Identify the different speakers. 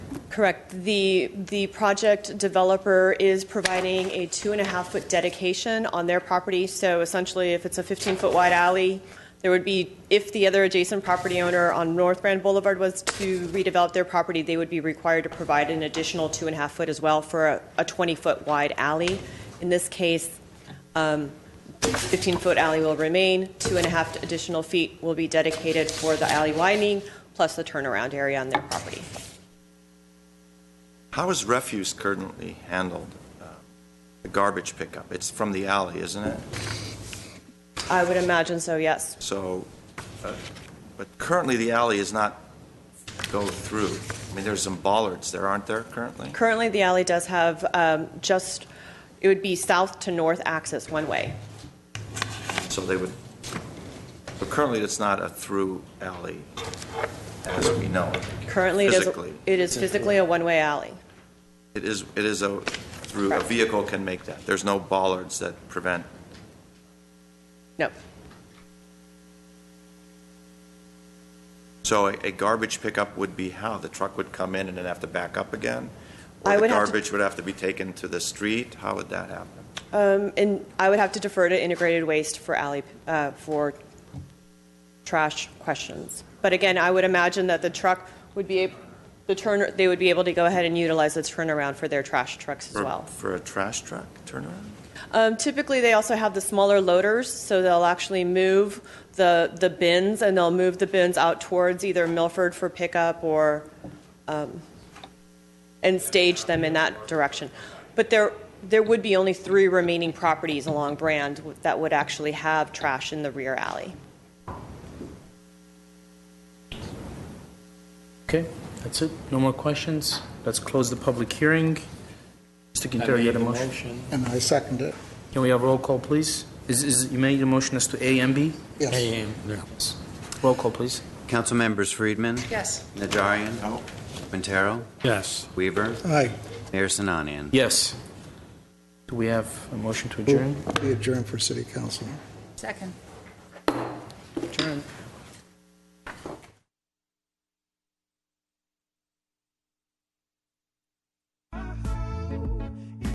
Speaker 1: Correct. The, the project developer is providing a two and a half foot dedication on their property. So essentially, if it's a 15 foot wide alley, there would be, if the other adjacent property owner on North Brand Boulevard was to redevelop their property, they would be required to provide an additional two and a half foot as well for a- a 20 foot wide alley. In this case, 15-foot alley will remain, two and a half additional feet will be dedicated for the alley widening, plus the turnaround area on their property.
Speaker 2: How is refuse currently handled? uh, The garbage pickup? It's from the alley, isn't it?
Speaker 1: I would imagine so, yes.
Speaker 2: So, uh, but currently the alley is not go through. I mean, there's some bollards there, aren't there, currently?
Speaker 1: Currently, the alley does have um, just, it would be south to north access one way.
Speaker 2: So they would, but currently it's not a through alley as we know it.
Speaker 1: Currently, it is,
Speaker 2: Physically.
Speaker 1: it is physically a one-way alley.
Speaker 2: It is, it is a, through, a
Speaker 1: Correct.
Speaker 2: vehicle can make that. There's no bollards that prevent,
Speaker 1: No,
Speaker 2: so a a garbage pickup would be how? The truck would come in and then have to back up again?
Speaker 1: I would have
Speaker 2: Or the
Speaker 1: to-
Speaker 2: garbage would have to be taken to the street? How would that happen?
Speaker 1: Um, and I would have to defer to integrated waste for alley, uh, for trash questions. But again, I would imagine that the truck would be, ab- the turn, they would be able to go ahead and utilize the turnaround for their trash trucks as
Speaker 2: For-
Speaker 1: well.
Speaker 2: For a trash truck turnaround?
Speaker 1: Um, typically, they also have the smaller loaders, so they'll actually move the, the bins, and they'll move the bins out towards either Milford for pickup or, um, and stage them in that direction. But there, there would be only three remaining properties along Brand that would actually have trash in the rear alley.
Speaker 3: Okay, that's it. No more questions. Let's close the public hearing. Mr.
Speaker 4: I
Speaker 3: Quintero, you had a
Speaker 4: made the
Speaker 3: motion?
Speaker 5: And I second it.
Speaker 3: Can we have roll call, please? Is, is, you made a motion as to A and B?
Speaker 5: Yes.
Speaker 3: Roll call, please.
Speaker 6: Council members: Friedman. Yes. Najarian. No. Quintero.
Speaker 4: Yes.
Speaker 6: Weaver.
Speaker 5: Aye.
Speaker 6: Mayor Sinanian.
Speaker 3: Yes. Do we have a motion to adjourn?
Speaker 5: We adjourn for city council.
Speaker 7: Second.
Speaker 3: Adjourn.